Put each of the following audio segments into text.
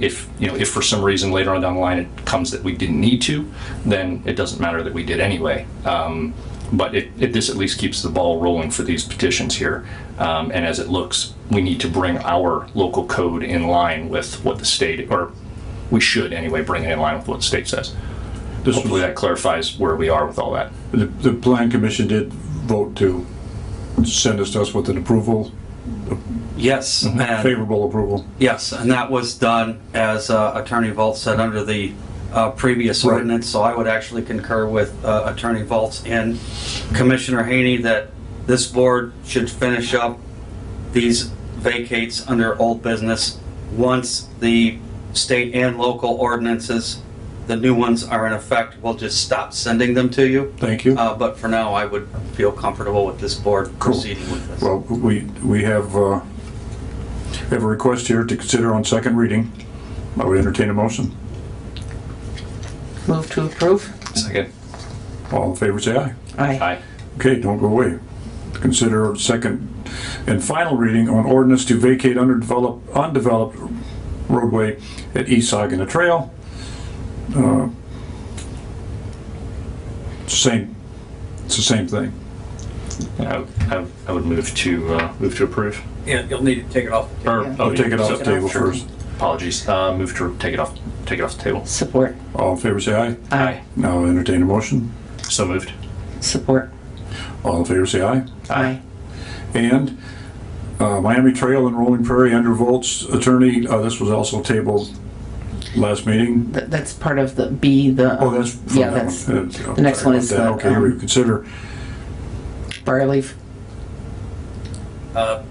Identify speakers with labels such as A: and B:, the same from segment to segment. A: If, you know, if for some reason later on down the line it comes that we didn't need to, then it doesn't matter that we did anyway. Um, But it, it, this at least keeps the ball rolling for these petitions here. Um, And as it looks, we need to bring our local code in line with what the state, or we should anyway, bring it in line with what the state says.
B: This
A: Hopefully
B: was,
A: that clarifies where we are with all that.
B: the, the plan commission did vote to send us to us with an approval,
C: Yes, and,
B: favorable approval.
C: yes, and that was done, as uh, Attorney Volz said, under the uh, previous
B: Right.
C: ordinance, so I would actually concur with uh, Attorney Volz and Commissioner Haney that this board should finish up these vacates under old business once the state and local ordinances, the new ones are in effect, we'll just stop sending them to you.
B: Thank you.
C: Uh, But for now, I would feel comfortable with this board
B: Cool.
C: proceeding with this.
B: Well, we, we have, uh, have a request here to consider on second reading. I would entertain a motion.
D: Move to approve?
A: Second.
B: All in favor, say aye.
D: Aye.
A: Aye.
B: Okay, don't go away. Consider second and final reading on ordinance to vacate underdeveloped, undeveloped roadway at East Saginaw Trail. Uh, Same, it's the same thing.
A: I, I- I would move to, uh, move to approve.
E: Yeah, you'll need to take it off.
A: Or,
D: Yeah.
A: oh,
B: We'll take it off the table
A: sure.
B: first.
A: Apologies. Uh, move to take it off, take it off the table.
D: Support?
B: All in favor, say aye. Now I'll entertain a motion.
A: So moved.
D: Support?
B: All in favor, say aye.
D: Aye.
B: And uh, Miami Trail and Rolling Prairie, Andrew Volts, attorney, uh, this was also tabled last meeting.
D: Th- That's part of the B, the.
B: Oh, that's.
D: um,
B: from
D: Yeah,
B: that one.
D: that's
B: Uh, I'm
D: the next
B: sorry
D: one is
B: about that.
D: the,
B: Okay,
D: um,
B: we consider,
D: bar leaf.
E: Uh,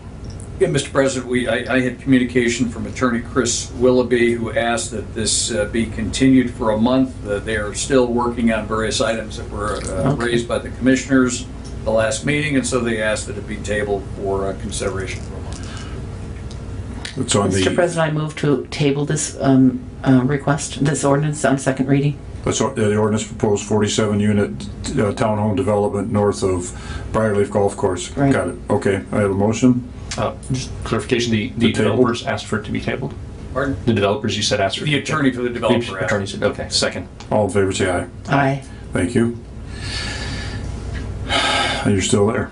E: Yeah, Mr. President, we, I, I had communication from Attorney Chris Willoughby, who asked that this uh, be continued for a month. Uh, They are still working on various items that were uh,
D: Okay.
E: raised by the commissioners the last meeting, and so they asked that it be tabled for uh, consideration for a month.
B: it's on
D: Mr.
B: the,
D: President, I move to table this um, uh, request, this ordinance on second reading.
B: that's on- the ordinance proposed 47 unit uh, townhome development north of Briarleaf Golf Course.
D: Right.
B: Got it, okay, I have a motion.
A: Uh, just clarification, the, the
B: The table?
A: developers asked for it to be tabled?
E: Pardon?
A: The developers, you said asked for it? to
E: The
A: be
E: attorney
A: tabled?
E: for the developer
A: The
E: asked.
A: Attorney said, okay, second.
B: All in favor, say aye.
D: Aye.
B: Thank you. You're still there.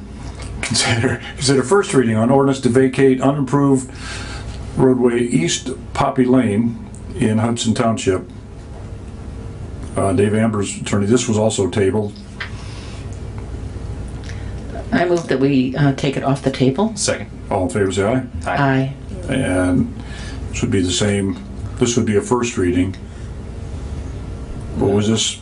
B: Consider, consider first reading on ordinance to vacate unimproved roadway East Poppy Lane in Hudson Township. Uh, Dave Amber's attorney, this was also tabled.
D: I move that we uh, take it off the table.
A: Second.
B: All in favor, say aye.
D: Aye.
B: And this would be the same, this would be a first reading. But was this,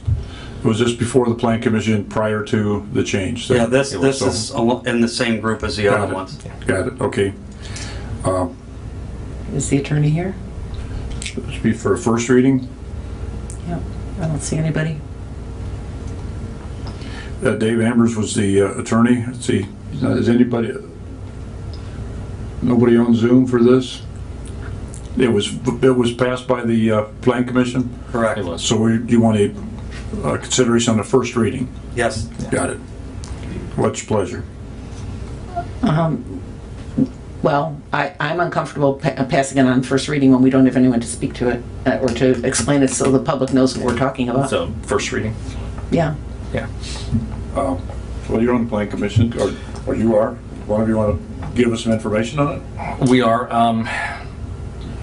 B: was this before the plan commission prior to the change?
C: Yeah, this,
A: It was
C: this is al- in the same group as the
B: Got
C: other
B: it.
C: ones.
B: Got it, okay.
D: Is the attorney here?
B: This be for a first reading.
D: Yep. I don't see anybody.
B: Uh, Dave Ambers was the uh, attorney. Let's see, uh, is anybody, nobody on Zoom for this? It was, it was passed by the uh, Plan Commission,
C: Correct.
A: It was.
B: so we, you want a uh, consideration on the first reading?
C: Yes.
B: Got it. What's your pleasure?
D: Um, Well, I, I'm uncomfortable pa- uh, passing it on first reading when we don't have anyone to speak to it uh, or to explain it so the public knows what we're talking about.
A: So first reading?
D: Yeah.
A: Yeah.
B: Um, Well, you're on the Plan Commission, or, or you are. One of you want to give us some information on it?
A: We are, um,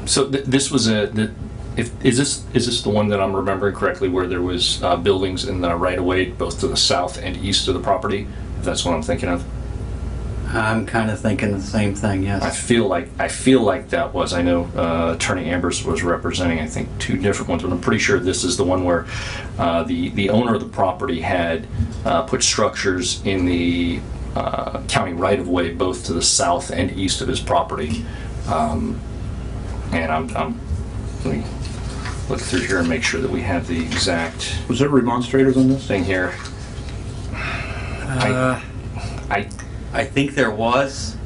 A: so th- this was a, the, if, is this, is this the one that I'm remembering correctly where there was, uh, buildings in the right of way, both to the south and east of the property? If that's what I'm thinking of?
C: I'm kind of thinking the same thing,
A: I
C: yes.
A: feel like I feel like that was. I know uh, Attorney Ambers was representing. I think two different ones, but I'm pretty sure this is the one where uh, the the owner of the property had uh, put structures in the uh, county right of way, both to the south and east of his property. Um, and I'm, I'm let me look through here and make sure that we have the exact
B: Was there remonstrators on this?
A: thing here. I, I
C: I think there was,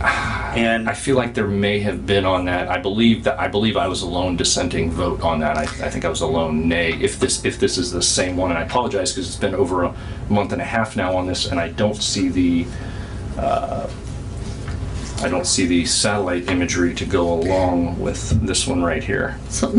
C: and
A: I feel like there may have been on that. I believe that I believe I was a lone dissenting vote on that. I, I think I was a lone nay. If this if this is the same one, and I apologize because it's been over a month and a half now on this, and I don't see the uh, I don't see the satellite imagery to go along with this one right here.
D: So